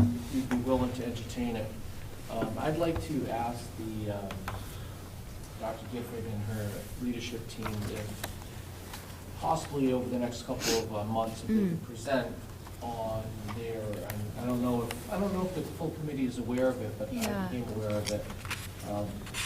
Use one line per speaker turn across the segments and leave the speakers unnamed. we'd be willing to entertain it. Um, I'd like to ask the, um, Dr. Gifford and her leadership team if possibly over the next couple of uh, months, if
Hmm.
they could present on their, and I don't know if, I don't know if the full committee is aware of it, but I
Yeah.
became aware of it. Um,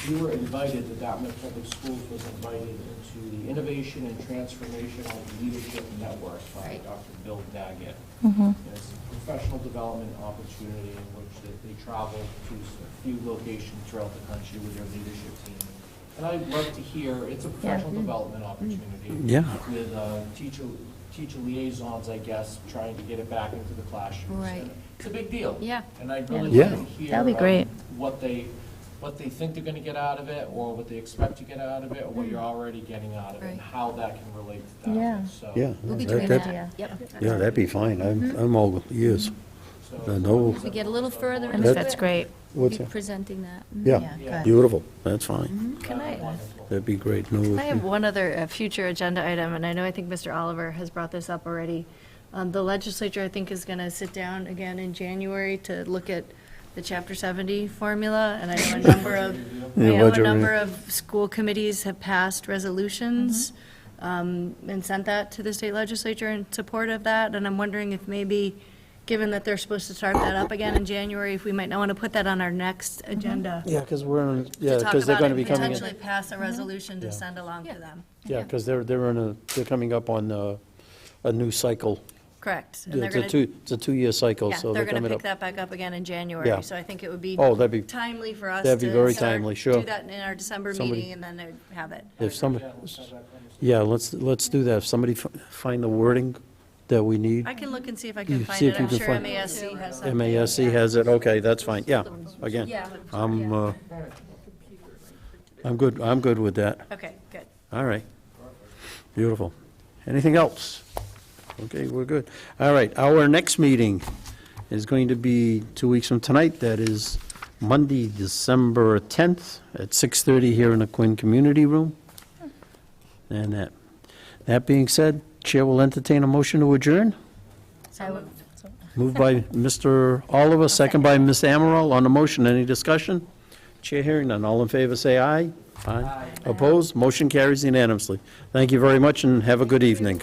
We were invited, the Dartmouth Public Schools was invited into the Innovation and Transformational Leadership Network by
Right.
Dr. Bill Daggett. And It's a professional development opportunity in which they- they travel to a few locations throughout the country with their leadership team. And I'd love to hear, it's a professional development opportunity.
Yeah.
With uh, teacher, teacher liaisons, I guess, trying to get it back into the classroom.
Right.
It's a big deal.
Yeah.
And I'd really
Yeah.
like to
Yeah.
hear.
That'd be
um,
great.
What they, what they think they're going to get out of it, or what they expect to get out of it, or what you're already getting out of it, and
Mm. Right.
how that can relate to that.
Yeah.
So-
Yeah.
We'll be
that-
doing
that-
that, yep.
Yeah, that'd be fine.
Mm-hmm.
I'm, I'm all ears.
so-
I know.
If we get a little further
I
into
think
it.
That-
that's great.
we'll
What's
be
that?
presenting that.
Yeah,
Yeah.
good.
beautiful. That's fine.
Can I,
Wonderful.
That'd be great. No,
Mm-hmm. I have one other uh, future agenda item, and I know I think Mr. Oliver has brought this up already. Um, The legislature, I think, is going to sit down again in January to look at the Chapter 70 formula, and I know a number of, I
Yeah,
know a
budget
number
review.
of school committees have passed resolutions
Mm-hmm.
um, and sent that to the state legislature in support of that, and I'm wondering if maybe, given that they're supposed to start that up again in January, if we might not want to put that on our next agenda.
Yeah, because we're, in- yeah,
to talk
because they're
about it
going
and
to be coming,
potentially
in-
pass a resolution to
Yeah.
send along to
Yeah.
them.
yeah, because they're, they're in a, they're coming up on uh, a new cycle.
Correct. And they're
It's a
going
two,
to,
it's a two-year cycle,
yeah,
so
they're
they're
going to
coming
pick that
up.
back up again in
Yeah.
January. So I think it would be
Oh, that'd be,
timely for us to.
that'd be very
start-
timely, sure.
Do that in our December
Somebody-
meeting and then they'd have it.
if some,
Yeah, let's have that conversation.
yeah, let's, let's do that. If somebody fi- find the wording that we need,
I can look and see if I can
You
find
see
it.
if you
I'm
can
sure
find-
MASC has something.
MASC has it, okay, that's fine, yeah, again.
Yeah.
I'm, uh, I'm good, I'm good with that.
Okay, good.
All right. Beautiful. Anything else? Okay, we're good. All right, our next meeting is going to be two weeks from tonight. That is Monday, December 10th at 6:30 here in the Quinn Community Room. And that, that being said, Chair will entertain a motion to adjourn.
So moved.
Moved by Mr. Oliver, second by Ms. Amaral. On the motion, any discussion? Chair hearing none. All in favor, say aye. Aye. Opposed? Motion carries unanimously. Thank you very much, and have a good evening.